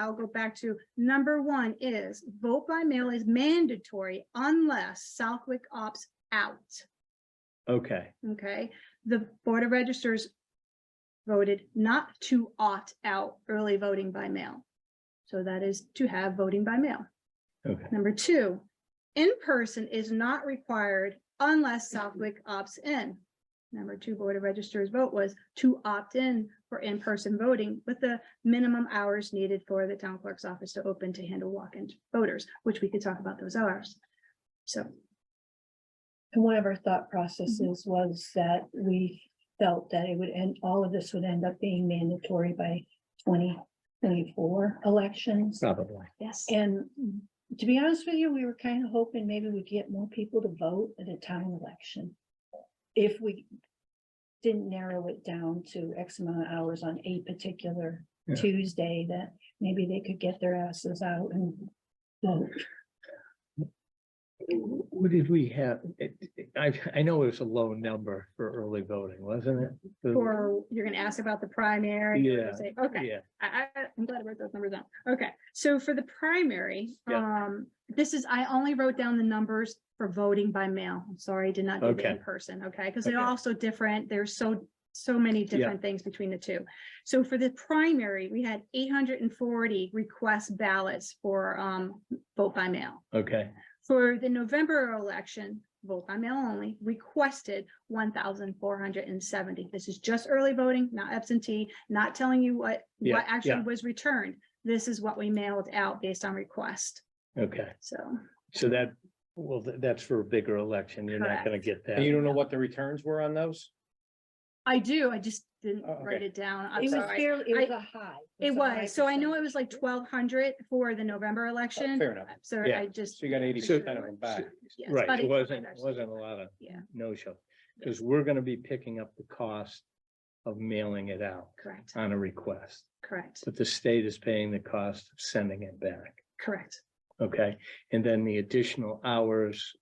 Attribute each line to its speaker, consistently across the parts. Speaker 1: I'll go back to number one is vote by mail is mandatory unless Southwick opts out.
Speaker 2: Okay,
Speaker 1: Okay, the Board of Registers voted not to opt out early voting by mail. So that is to have voting by mail.
Speaker 2: okay,
Speaker 1: Number two, in-person is not required unless Southwick opts in. Number two, Board of Registers vote was to opt in for in-person voting with the minimum hours needed for the town clerk's office to open to handle walk-in voters, which we could talk about those hours. So,
Speaker 3: And one of our
Speaker 1: Mm-hmm.
Speaker 3: thought processes was that we felt that it would end, all of this would end up being mandatory by twenty twenty-four elections.
Speaker 2: probably.
Speaker 1: yes.
Speaker 3: And to be honest with you, we were kind of hoping maybe we'd get more people to vote at a town election. If we didn't narrow it down to X amount of hours on a particular
Speaker 2: Yeah.
Speaker 3: Tuesday, that maybe they could get their asses out and vote.
Speaker 2: What did we have? It- it- I, I know it was a low number for early voting, wasn't it? The-
Speaker 1: Or you're gonna ask about the primary. you're gonna
Speaker 2: Yeah,
Speaker 1: say, Okay.
Speaker 2: Yeah,
Speaker 1: I, I, I'm glad I wrote those numbers down. Okay, so for the primary,
Speaker 2: Yeah.
Speaker 1: um, this is, I only wrote down the numbers for voting by mail. I'm sorry, I did not do the
Speaker 2: Okay.
Speaker 1: in person, okay? Because they're
Speaker 2: Okay.
Speaker 1: all so different. There's so, so many different things between the two. So for the primary, we had eight hundred and forty request ballots for, um, vote by mail.
Speaker 2: okay,
Speaker 1: For the November election, vote by mail only, requested one thousand four hundred and seventy. This is just early voting, not absentee, not telling you what,
Speaker 2: Yeah,
Speaker 1: what actually
Speaker 2: yeah.
Speaker 1: was returned. This is what we mailed out based on request,
Speaker 2: okay.
Speaker 1: so.
Speaker 2: So that, well, th- that's for a bigger election. You're not gonna
Speaker 1: Correct.
Speaker 2: get
Speaker 4: And you
Speaker 2: that.
Speaker 4: don't know what the returns were on those?
Speaker 1: I do, I just didn't
Speaker 4: Oh, okay.
Speaker 1: write it down, I'm
Speaker 3: It was
Speaker 1: sorry.
Speaker 3: fairly, it was
Speaker 1: I-
Speaker 3: a high.
Speaker 1: It
Speaker 3: a high
Speaker 1: was, so I know
Speaker 3: percentage.
Speaker 1: it was like twelve hundred for the November
Speaker 4: Oh,
Speaker 1: election,
Speaker 4: Fair enough.
Speaker 1: so
Speaker 2: Yeah.
Speaker 1: I just.
Speaker 4: So you got eighty percent of them back.
Speaker 1: yes, about
Speaker 2: Right, it
Speaker 1: 80%
Speaker 2: wasn't,
Speaker 1: actually.
Speaker 2: wasn't a lot of
Speaker 1: Yeah.
Speaker 2: no-show, because we're gonna be picking up the cost of mailing it out
Speaker 1: Correct,
Speaker 2: on a request,
Speaker 1: correct,
Speaker 2: but the state is paying the cost of sending it back.
Speaker 1: correct,
Speaker 2: Okay, and then the additional hours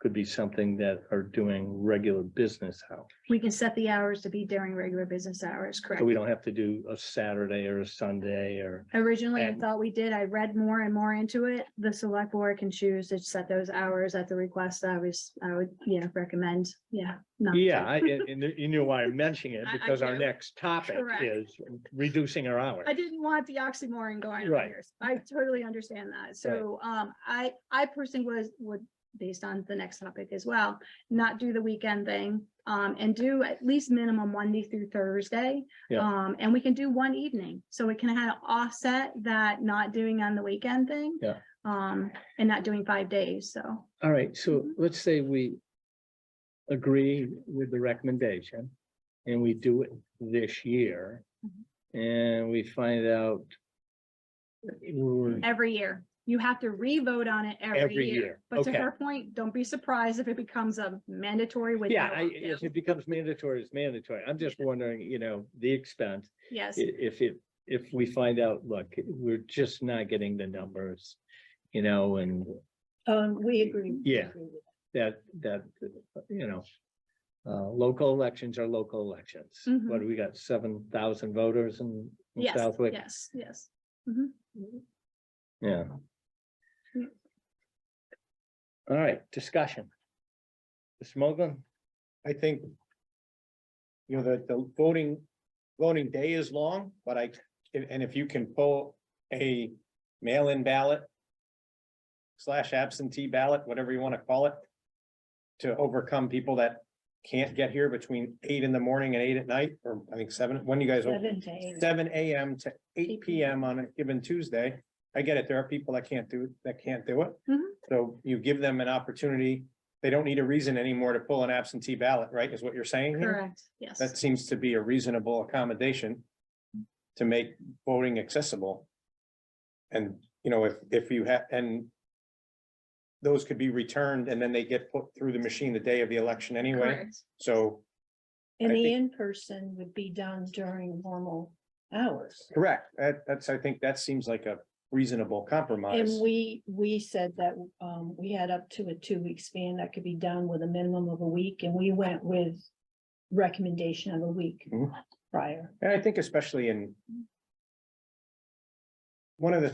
Speaker 2: could be something that are doing regular business hours.
Speaker 1: we can set the hours to be during regular business hours, correct.
Speaker 2: So we don't have to do a Saturday or a Sunday or,
Speaker 1: Originally, I
Speaker 2: And-
Speaker 1: thought we did. I read more and more into it. The select board can choose to set those hours at the request. I was, I would, yeah, recommend, yeah. not to.
Speaker 2: yeah, I, and, and you know why I'm mentioning it,
Speaker 1: I- I
Speaker 2: because our
Speaker 1: do.
Speaker 2: next topic
Speaker 1: Correct.
Speaker 2: is reducing our hours.
Speaker 1: I didn't want the oxymoron going on
Speaker 2: Right.
Speaker 1: here. so I totally understand that. So, um, I, I personally was, would, based on the next topic as well, not do the weekend thing, um, and do at least minimum Monday through Thursday.
Speaker 2: Yeah.
Speaker 1: Um, and we can do one evening, so we can kind of offset that not doing on the weekend thing.
Speaker 2: Yeah.
Speaker 1: Um, and not doing five days, so,
Speaker 2: All right, so
Speaker 1: Mm-hmm.
Speaker 2: let's say we agree with the recommendation and we do it this year.
Speaker 1: Mm-hmm.
Speaker 2: And we find out we're-
Speaker 1: every year. You have to re-vote on it every
Speaker 2: Every
Speaker 1: year.
Speaker 2: year,
Speaker 1: But to
Speaker 2: okay.
Speaker 1: her point, don't be surprised if it becomes a mandatory with.
Speaker 2: Yeah,
Speaker 1: no
Speaker 2: I,
Speaker 1: opt-out.
Speaker 2: if it becomes mandatory, it's mandatory. I'm just wondering, you know, the expense, i-
Speaker 1: Yes,
Speaker 2: if it, if we find out, look, we're just not getting the numbers. You know, and
Speaker 3: Um, we agree. we
Speaker 2: Yeah.
Speaker 3: agree with
Speaker 2: that, that, you know. Uh, local elections are local elections. What, do we got seven thousand voters in in
Speaker 1: Mm-hmm. yes,
Speaker 2: Southwick?
Speaker 1: yes, yes. Yeah.
Speaker 2: Yeah. All right, discussion. Mr. Mogul?
Speaker 4: I think. You know, the, the voting, voting day is long, but I, and and if you can pull a mail-in ballot. Slash absentee ballot, whatever you want to call it. To overcome people that can't get here between eight in the morning and eight at night, or I think seven, when you guys
Speaker 3: Seven
Speaker 4: open?
Speaker 3: to eight.
Speaker 4: seven AM to eight PM on a given Tuesday. I get it. There are people that can't do, that can't do it.
Speaker 1: Mhm.
Speaker 4: So you give them an opportunity. They don't need a reason anymore to pull an absentee ballot, right? Is what you're saying here?
Speaker 1: Correct, yes.
Speaker 4: That seems to be a reasonable accommodation to make voting accessible. And, you know, if, if you have, and those could be returned and then they get put through the machine the day of the election anyway.
Speaker 1: Correct.
Speaker 4: So, I
Speaker 3: And the
Speaker 4: think-
Speaker 3: in-person would be done during normal hours.
Speaker 4: correct. That, that's, I think that seems like a reasonable compromise.
Speaker 3: And we, we said that, um, we had up to a two-week span that could be done with a minimum of a week, and we went with recommendation of a week
Speaker 4: Mhm.
Speaker 3: prior.
Speaker 4: And I think especially in one of the